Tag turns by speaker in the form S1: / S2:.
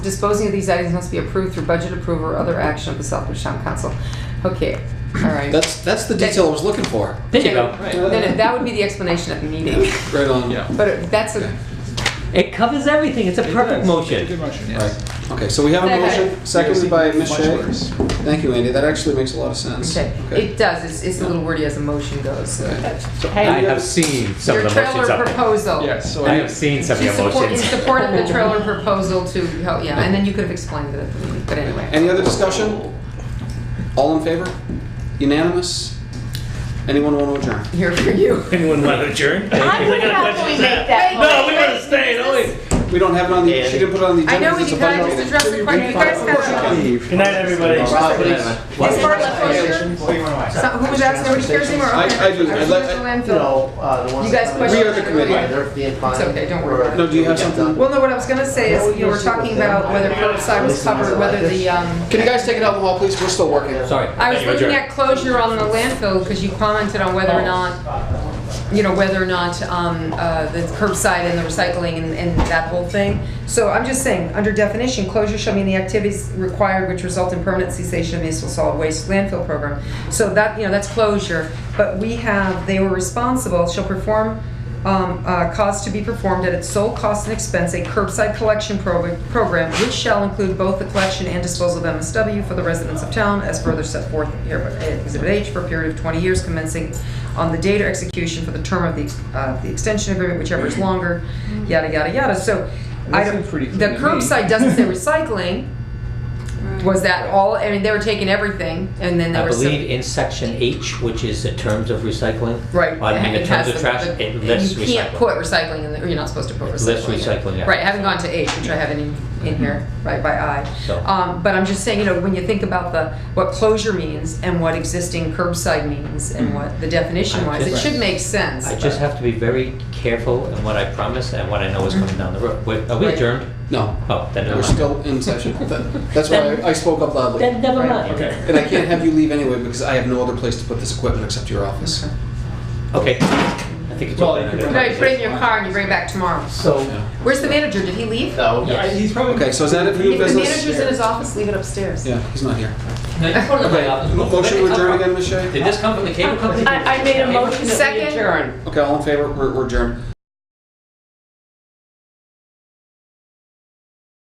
S1: Disposing of these items must be approved through budget approval or other action of the Southbridge Town Council. Okay, all right.
S2: That's that's the detail I was looking for.
S3: There you
S1: Okay.
S3: go.
S1: No, no, that would be the explanation at the meeting,
S2: Right on.
S4: Yeah.
S1: but it- that's a,
S3: It covers everything. It's a
S4: It
S3: perfect
S4: does. It's a
S3: motion.
S4: good motion, yes.
S2: Right. Okay. So we have a
S1: Second.
S2: motion, seconded by Ms.
S4: Much
S2: Shea.
S4: worse.
S2: Thank you, Andy. That actually makes a lot of sense.
S1: okay, it does, it's, it's a little wordy as a motion goes.
S2: Okay. So
S3: Hey.
S5: I have seen some
S1: Your
S5: of the motions
S1: trailer
S5: up there.
S1: proposal.
S4: Yes, so
S5: I have
S4: I,
S5: seen some of
S1: To
S5: your
S1: support- In
S5: motions.
S1: support of the trailer proposal to help, yeah, and then you could have explained it at the meeting, but anyway.
S2: Any other discussion? All in favor? Unanimous? Anyone want to adjourn?
S1: Here for you.
S6: Anyone want to adjourn?
S7: I would help when we make that.
S6: No, we
S7: motion.
S6: want to stay, don't we?
S2: We don't have it on the, she didn't put it on the
S1: I
S2: agenda.
S1: know, we
S2: because
S1: can
S2: it's a budget
S1: just
S2: meeting.
S1: address the question, you guys have.
S6: Good night, everybody.
S1: As far as closure,
S8: What do you want to
S1: so who was asking, nobody cares anymore?
S2: I-
S1: Okay.
S2: I do. I'd like-
S1: Our landfill.
S8: You know, uh, the ones.
S1: You guys
S8: that-
S1: question-
S2: We are the committee.
S8: Yeah, they're being fine.
S1: It's okay, don't worry about it.
S2: No, do you have something?
S1: Well, no, what I was gonna say is, you know, we're talking about whether curbside was covered, whether the, um,
S2: Can you guys take it out in the hall, please? We're still working.
S3: Sorry.
S1: I was
S3: Thank you,
S1: looking
S3: adjourn.
S1: at closure on the landfill, because you commented on whether or not, you know, whether or not, um, uh, the curbside and the recycling and, and that whole thing. So I'm just saying, under definition, closure shall mean the activities required which result in permanent cessation of municipal solid waste landfill program. So that, you know, that's closure, but we have, they were responsible, shall perform, um, uh, cause to be performed at its sole cost and expense, a curbside collection prog- program, which shall include both the collection and disposal of MSW for the residents of town, as further set forth here by Exhibit H, for a period of 20 years commencing on the date or execution for the term of the, uh, the extension agreement, whichever is longer, yada, yada, yada. So, I
S4: That
S1: don't,
S4: seems pretty
S1: the
S4: clean to me.
S1: curbside doesn't say recycling. Was that all, I mean, they were taking everything, and then there
S3: I
S1: were some.
S3: believe in section H, which is the terms of recycling.
S1: Right.
S3: I mean,
S1: it
S3: the
S1: has
S3: terms of
S1: the-
S3: trash,
S1: the-
S3: it lists
S1: You can't
S3: recycling.
S1: put recycling in there, you're not supposed to put recycling.
S3: Lists
S1: in.
S3: recycling, yeah.
S1: Right, I haven't gone to H, which I have in, in here, right, by I.
S3: So-
S1: Um, but I'm just saying, you know, when you think about the, what closure means and what existing curbside means and what the definition
S3: Hmm. I
S1: wise, it
S3: just-
S1: should make sense.
S3: I just have to be very careful in what I promise and what I know is coming down the road. Wait, Are we
S1: Right.
S3: adjourned?
S2: No,
S3: Oh, then never
S2: we're
S3: mind.
S2: still in session. That- That's why I I spoke up loudly.
S3: Then never
S1: Right.
S3: mind.
S4: okay.
S2: And I can't have you leave anyway because I have no other place to put this equipment except your office.
S3: Okay. I think it's
S4: Well,
S3: all
S4: you
S3: in
S4: could
S1: No,
S3: there.
S1: you put it in your car and you bring it back tomorrow.
S3: So,
S2: Yeah.
S1: Where's the manager? Did he leave?
S8: No,
S4: I-
S3: yes.
S4: he's probably.
S2: Okay, so is that it for new
S1: If the
S2: business?
S1: manager's in his office, leave it upstairs.
S2: Yeah, he's not here.
S3: No, you put it in my office.
S2: Motion to adjourn again, Ms. Shea?
S3: Did this come from the cable company?
S7: I, I made a motion that we
S1: Second.
S7: adjourn.
S2: Okay, all in favor, we're, we're adjourned.